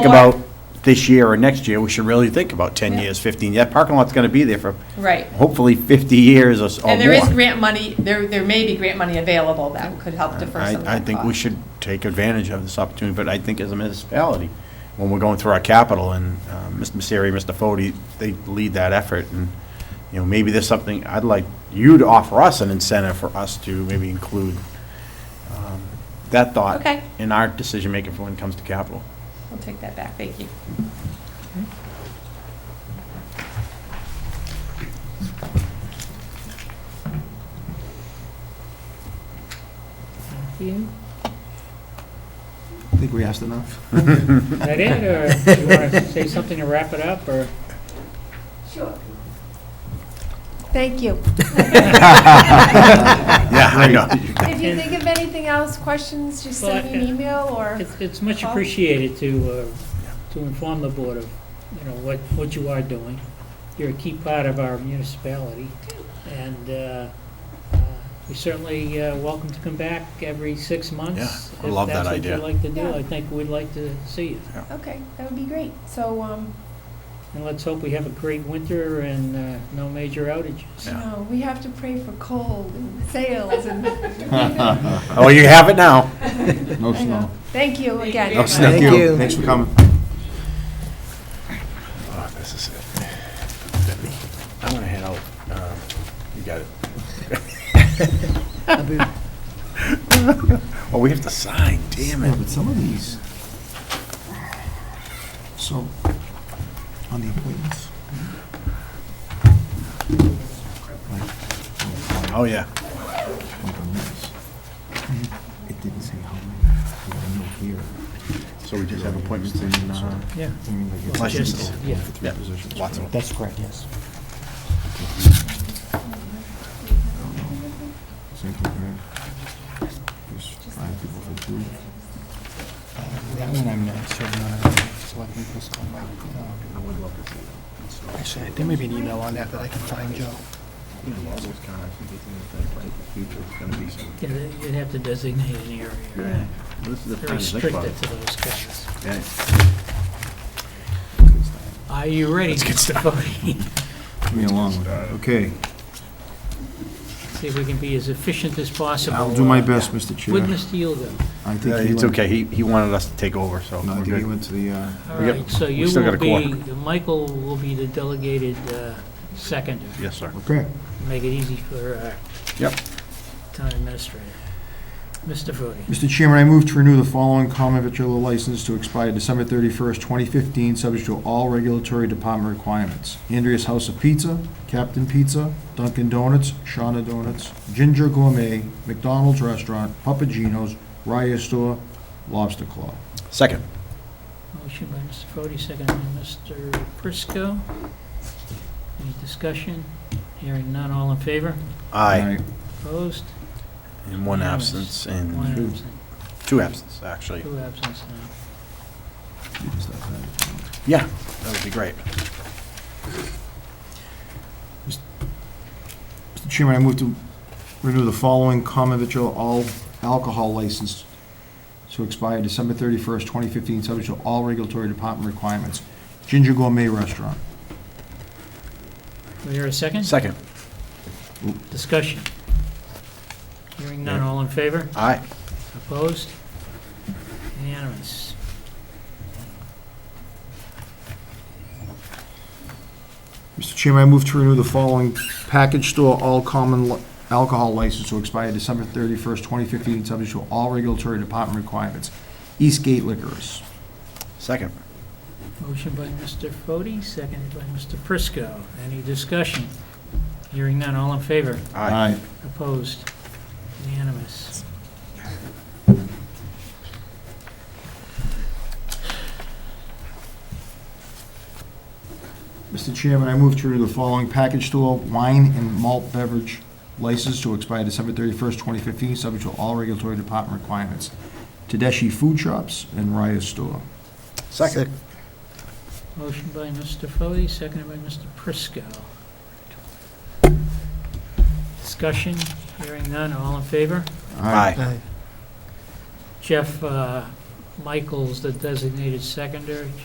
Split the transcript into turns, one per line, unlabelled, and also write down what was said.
think
Well-
about this year or next year, we should really think about 10 years, 15, that parking lot's going to be there for
Right.
hopefully 50 years or s- or more.
And there is grant money, there, there may be grant money available that could help defer some of
I, I
that
think we
cost.
should take advantage of this opportunity, but I think as a municipality, when we're going through our capital, and uh, Mr. Misery, Mr. Fode, they lead that effort, and, you know, maybe there's something, I'd like you to offer us an incentive for us to maybe include um, that thought
Okay.
in our decision-making for when it comes to capital.
I'll take that back, thank you.
You?
I think we asked enough.
Is that it, or do you want to say something to wrap it up, or?
Thank you.
Yeah, I know.
If you think of anything else, questions, just send me an email or,
It's, it's much appreciated to, uh, to inform the board of, you know, what, what you are doing. You're a key part of our municipality, and uh, uh, we certainly uh, welcome to come back every six months.
Yeah, I love that idea.
If that's what you'd like to
Yeah.
do, I think we'd like to see you.
okay, that would be great. So, um,
And let's hope we have a great winter and uh, no major
you
outages.
Yeah.
know, we have to pray for cold and sales and,
Oh, you have it now.
No
I know.
snow.
Thank you again.
No snow.
Thank you.
Thanks for coming.
Oh, this is it. I'm gonna head out. Um, You got it. Oh, we have to sign, damn
Yeah,
it.
but some of these, so, on the appointments. like,
Oh, yeah.
like on this, It didn't say how many, there were no here.
So we just have appointments in, uh,
Yeah. I mean, like, it's-
Licenses.
Yeah.
For three
Yeah,
positions.
lots of them.
That's correct, yes. Same thing here. There's five people for two.
That one I'm not sure, uh, Selectman Driscoll, um, Actually, there may be an email on that that I can find, Joe.
Yeah, You'd have to designate an area.
Yeah. This is the
They're
time to think about
restricted
it.
to those guys.
Yeah.
Are you ready? Let's get started.
Give me a long one. Okay,
See if we can be as efficient as possible.
I'll do my best, Mr.
With
Chair.
Mr. Yilgo.
I think
Yeah,
he
It's
went-
okay, he, he wanted us to take over, so
No, I
we're
think he
good.
went to the, uh,
All
We got-
right, so
we
you
still got
will
a
be,
quorum.
Michael will be the delegated uh, seconder.
Yes, sir.
okay.
Make it easy for our
Yep.
town administrator. Mr. Fode.
Mr. Chairman, I move to renew the following common victular license to expire December 31st, 2015, subject to all regulatory department requirements. Andrea's House of Pizza, Captain Pizza, Dunkin' Donuts, Shawna Donuts, Ginger Gourmet, McDonald's Restaurant, Papagino's, Raya Store, Lobster Claw.
Second.
Motion by Mr. Fode, second by Mr. Prisco. Any discussion? Hearing none, all in favor?
Aye.
Opposed?
And one
Unanimous.
absence,
One
and
absent,
two absences, actually.
two absence now.
Yeah, that would be great.
Mr. Chairman, I move to renew the following common victual all alcohol license to expire December 31st, 2015, subject to all regulatory department requirements. Ginger Gourmet Restaurant.
Do we hear a second?
Second.
Discussion. Hearing none, all in favor?
Aye.
Opposed? Unanimous.
Mr. Chairman, I move to renew the following package store all common li- alcohol license to expire December 31st, 2015, subject to all regulatory department requirements. Eastgate Liquors.
Second.
Motion by Mr. Fode, seconded by Mr. Prisco. Any discussion? Hearing none, all in favor?
Aye.
Opposed? Unanimous.
Mr. Chairman, I move to renew the following package store wine and malt beverage license to expire December 31st, 2015, subject to all regulatory department requirements. Tedeschi Food Shops and Raya Store.
Second.
Motion by Mr. Fode, seconded by Mr. Prisco. Discussion? Hearing none, all in favor?
Aye.
Aye.
Jeff, uh, Michael's the designated seconder.